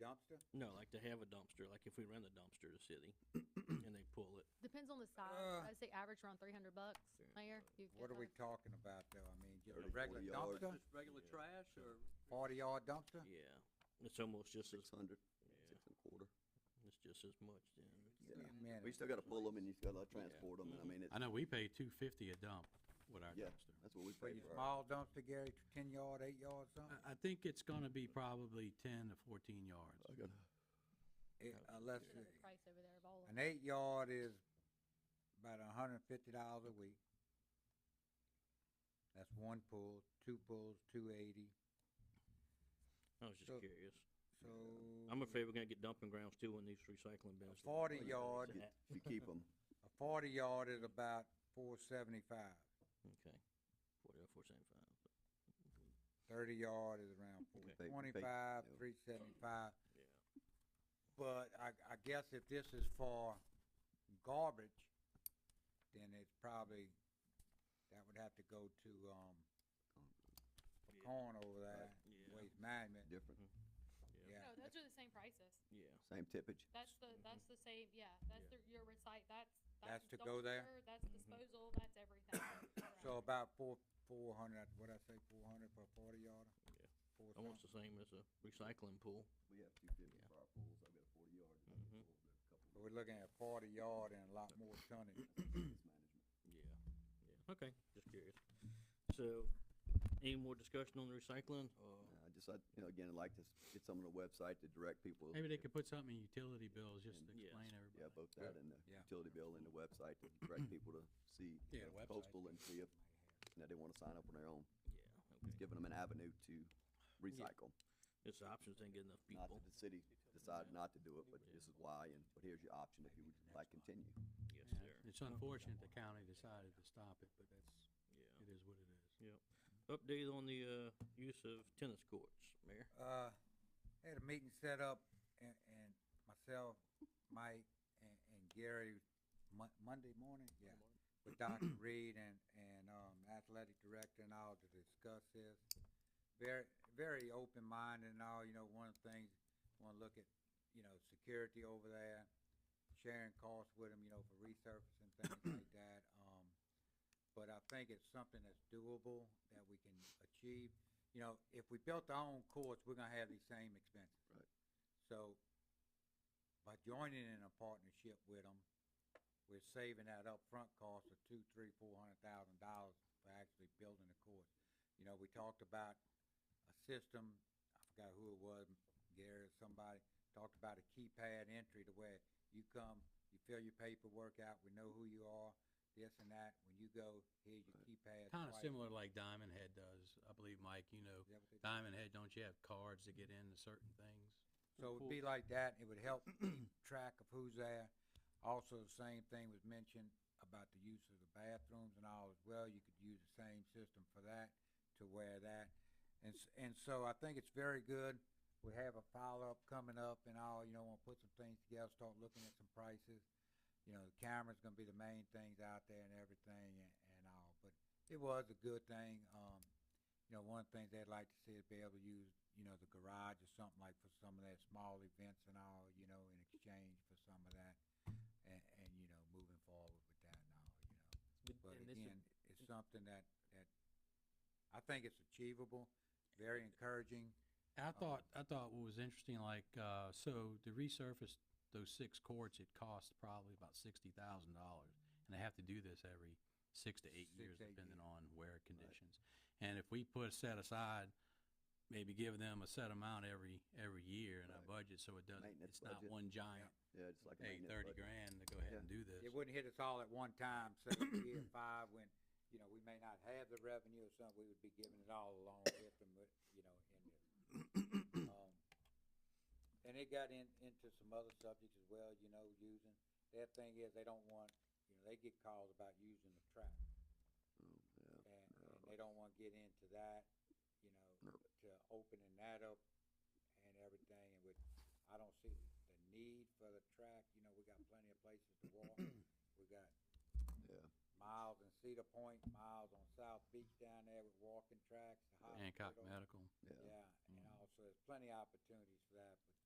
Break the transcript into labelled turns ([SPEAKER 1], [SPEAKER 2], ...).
[SPEAKER 1] dumpster?
[SPEAKER 2] No, like to have a dumpster, like if we rent a dumpster to city and they pull it.
[SPEAKER 3] Depends on the size.
[SPEAKER 1] Uh,
[SPEAKER 3] I'd say average around three hundred bucks. Mayor, you've.
[SPEAKER 1] What are
[SPEAKER 3] got
[SPEAKER 1] we
[SPEAKER 3] those.
[SPEAKER 1] talking about though? I mean, just a
[SPEAKER 4] 30, 40
[SPEAKER 1] regular
[SPEAKER 4] yards.
[SPEAKER 1] dumpster,
[SPEAKER 5] Just regular
[SPEAKER 4] Yeah.
[SPEAKER 5] trash or?
[SPEAKER 1] forty yard dumpster?
[SPEAKER 2] Yeah, it's almost just as,
[SPEAKER 4] six hundred,
[SPEAKER 2] yeah,
[SPEAKER 4] six and a quarter.
[SPEAKER 2] it's just as much then.
[SPEAKER 1] Wait a
[SPEAKER 4] We
[SPEAKER 1] minute.
[SPEAKER 4] still gotta pull them and Mm-hmm. you still gotta transport them, and I
[SPEAKER 2] Mhm.
[SPEAKER 4] mean, it's,
[SPEAKER 6] I know we pay two fifty a dump with our
[SPEAKER 4] Yeah.
[SPEAKER 6] dumpster.
[SPEAKER 4] that's what we
[SPEAKER 1] For
[SPEAKER 4] pay
[SPEAKER 1] your
[SPEAKER 4] for.
[SPEAKER 1] small dumpster, Gary, ten yard, eight yard,
[SPEAKER 4] Uh,
[SPEAKER 1] something?
[SPEAKER 6] I, I think it's gonna be probably ten to fourteen yards.
[SPEAKER 4] I gotta-
[SPEAKER 1] It- Unless,
[SPEAKER 3] Look at the
[SPEAKER 1] it-
[SPEAKER 3] Price over there of all of
[SPEAKER 1] uh, an eight yard is about a hundred and fifty dollars a week. That's one pull, two pulls, two eighty,
[SPEAKER 2] I was just
[SPEAKER 1] So-
[SPEAKER 2] curious.
[SPEAKER 1] so.
[SPEAKER 2] I'm afraid we're gonna get dumping grounds too in these recycling bins. that we
[SPEAKER 1] 40
[SPEAKER 2] put
[SPEAKER 1] yard.
[SPEAKER 2] these at.
[SPEAKER 4] If you keep them,
[SPEAKER 1] A forty yard is about four seventy-five.
[SPEAKER 2] Okay. Forty or four seventy-five.
[SPEAKER 1] Thirty yard is around four
[SPEAKER 4] Big- big,
[SPEAKER 1] twenty-five,
[SPEAKER 4] yeah.
[SPEAKER 1] three seventy-five.
[SPEAKER 2] Yeah.
[SPEAKER 1] But I, I guess if this is for garbage, then it's probably, that would have to go to, um,
[SPEAKER 2] Yeah.
[SPEAKER 1] Corn over there,
[SPEAKER 2] Yeah. Mm-hmm.
[SPEAKER 1] Waste Management,
[SPEAKER 4] different,
[SPEAKER 1] yeah.
[SPEAKER 3] No, those are the same prices.
[SPEAKER 2] Yeah.
[SPEAKER 4] same tippage.
[SPEAKER 3] That's the,
[SPEAKER 2] Mhm.
[SPEAKER 3] that's the same, yeah, that's the, your recite, that's.
[SPEAKER 1] Mm-hmm. That's to go there? Mm-hmm.
[SPEAKER 3] dumpster, That's disposal, that's everything.
[SPEAKER 1] So about four, four hundred, what'd I say, four hundred for a forty yarder?
[SPEAKER 2] Yeah.
[SPEAKER 1] Four
[SPEAKER 2] Almost
[SPEAKER 1] something.
[SPEAKER 2] the same as a recycling pool.
[SPEAKER 4] We have two fifty
[SPEAKER 2] Yeah.
[SPEAKER 4] for our pools, I've got a forty yard, and I've
[SPEAKER 2] Mhm.
[SPEAKER 6] Mm-hmm.
[SPEAKER 4] got a couple of
[SPEAKER 1] But we're looking at forty yard and a lot more tonnage.
[SPEAKER 4] management.
[SPEAKER 2] Yeah, yeah, okay, just curious. So, any more discussion on the recycling, or?
[SPEAKER 4] Uh, I just, I, you know, again, I'd like to s- get some on the website to direct people.
[SPEAKER 6] Maybe they
[SPEAKER 4] to-
[SPEAKER 6] could put something in utility bills just to
[SPEAKER 2] And- Yes.
[SPEAKER 6] explain
[SPEAKER 4] Yeah,
[SPEAKER 6] everybody.
[SPEAKER 4] both that and the
[SPEAKER 1] Yeah.
[SPEAKER 4] utility bill and the website to direct people to see
[SPEAKER 6] Yeah, website.
[SPEAKER 4] postal and see if, you know, they wanna sign up on their own.
[SPEAKER 2] Yeah,
[SPEAKER 4] It's
[SPEAKER 2] okay.
[SPEAKER 4] giving them an avenue to recycle.
[SPEAKER 2] It's options, ain't get enough
[SPEAKER 4] Not
[SPEAKER 2] people,
[SPEAKER 4] that the city decided not to do it, but this is why, and, but here's your option if you would like continue.
[SPEAKER 2] yes,
[SPEAKER 6] Yeah.
[SPEAKER 2] sir,
[SPEAKER 6] It's unfortunate the county decided to stop it, but that's,
[SPEAKER 2] yeah.
[SPEAKER 6] it is what it is.
[SPEAKER 2] Update on the, uh, use of tennis courts, Mayor?
[SPEAKER 1] Uh, had a meeting set up and, and myself, Mike, and, and Gary, Mon- Monday morning, yeah. With Dr. Reed and, and, um, athletic director and all to discuss this. Very, very open-minded and all, you know, one of the things, wanna look at, you know, security over there, sharing costs with them, you know, for resurfacing, things like that, um. But I think it's something that's doable, that we can achieve you know, if we built our own courts, we're gonna have these same expenses.
[SPEAKER 4] Right.
[SPEAKER 1] So, by joining in a partnership with them, we're saving that upfront cost of two, three, four hundred thousand dollars for actually building the courts. You know, we talked about a system, I forgot who it was, Gary or somebody, talked about a keypad entry to where you come, you fill your paperwork out, we know who you are, this and that, when you go, here's your keypad.
[SPEAKER 6] Kinda
[SPEAKER 1] swipe.
[SPEAKER 6] similar like Diamond Head does, I believe, Mike, you know,
[SPEAKER 1] Is that what they do?
[SPEAKER 6] Diamond Head, don't you have cards to get into certain things?
[SPEAKER 1] So it would be like that, it would help keep track of who's there. Also, the same thing was mentioned about the use of the bathrooms and all as well, you could use the same system for that, to where that. And, s- and so I think it's very good, we have a follow-up coming up and all, you know, wanna put some things together, start looking at some prices. You know, the camera's gonna be the main things out there and everything and, and all, but it was a good thing, um, you know, one of the things they'd like to see is be able to use, you know, the garage or something like for some of their small events and all, you know, in exchange for some of that. And, and, you know, moving forward with that and all, you know. But again, it's something that, that, I think it's achievable, very encouraging.
[SPEAKER 6] I
[SPEAKER 4] Uh,
[SPEAKER 6] thought, I thought what was interesting, like, uh, so to resurface those six courts, it costs probably about sixty thousand dollars. And they have to do this every six to eight
[SPEAKER 1] Six,
[SPEAKER 6] years,
[SPEAKER 1] eight
[SPEAKER 6] depending
[SPEAKER 1] years.
[SPEAKER 6] on wear conditions. And if we put a set aside, maybe give them a set amount every, every year in our
[SPEAKER 4] Right.
[SPEAKER 6] budget, so it doesn't, it's
[SPEAKER 4] Maintenance
[SPEAKER 6] not
[SPEAKER 4] budget.
[SPEAKER 6] one giant,
[SPEAKER 4] Yeah, just like. a
[SPEAKER 6] hey,
[SPEAKER 4] maintenance
[SPEAKER 6] thirty
[SPEAKER 4] budget.
[SPEAKER 6] grand to go ahead
[SPEAKER 4] Yeah.
[SPEAKER 6] and do this.
[SPEAKER 1] It wouldn't hit us all at one time, say year five, when, you know, we may not have the revenue or something, we would be giving it all along with them, but, you know, in this. Um, And it got in, into some other subjects as well, you know, using, their thing is, they don't want, you know, they get calls about using the trap,
[SPEAKER 4] Oh, yeah.
[SPEAKER 1] and, and they don't wanna get into that, you know,
[SPEAKER 4] No.
[SPEAKER 1] to opening that up and everything, and with, I don't see the need for the track, you know, we got plenty of places to walk, we got
[SPEAKER 4] Yeah,
[SPEAKER 1] miles in Cedar Point, miles on South Beach down there with walking tracks, the hospital.
[SPEAKER 6] Hancock Medical.
[SPEAKER 4] yeah.
[SPEAKER 1] Yeah, and also, there's plenty of opportunities for that, but